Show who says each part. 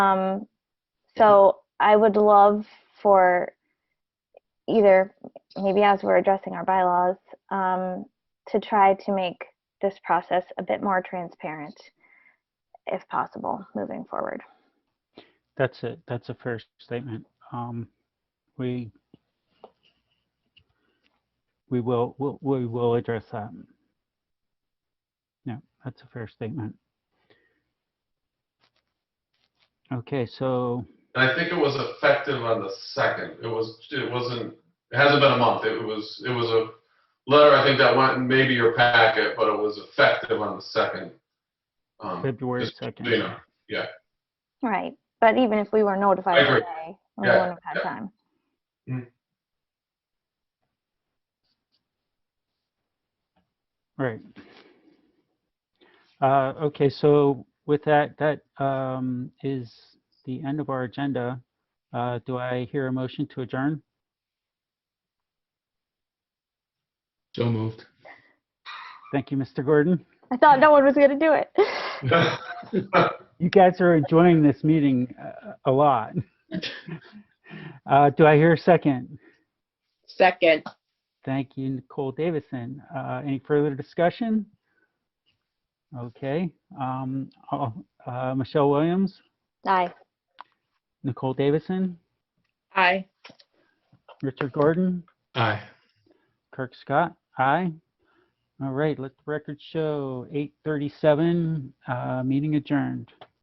Speaker 1: Um, so I would love for either, maybe as we're addressing our bylaws, um, to try to make this process a bit more transparent if possible, moving forward.
Speaker 2: That's it. That's a fair statement. Um, we we will, we'll- we will address that. Yeah, that's a fair statement. Okay, so,
Speaker 3: And I think it was effective on the second. It was, it wasn't, it hasn't been a month. It was, it was a letter, I think that went in maybe your packet, but it was effective on the second. Um,
Speaker 2: February
Speaker 3: just so
Speaker 2: 2nd.
Speaker 3: You know,
Speaker 1: Right, but even if we were notified
Speaker 3: agree.
Speaker 1: today, we
Speaker 3: Yeah,
Speaker 1: wouldn't have had time.
Speaker 2: right. Uh, okay, so with that, that, um, is the end of our agenda. Uh, do I hear a motion to adjourn?
Speaker 4: So moved.
Speaker 2: Thank you, Mr. Gordon.
Speaker 1: I thought no one was gonna do it.
Speaker 2: You guys are enjoying this meeting uh, a lot. Uh, Do I hear a second?
Speaker 5: Second,
Speaker 2: Thank you, Nicole Davison. Uh, Any further discussion? Okay. um, I'll- uh, Michelle Williams,
Speaker 1: Aye.
Speaker 2: Nicole Davison,
Speaker 5: aye.
Speaker 2: Richard Gordon,
Speaker 4: Aye.
Speaker 2: Kirk Scott, aye. All right, let the record show 8:37, uh, meeting adjourned.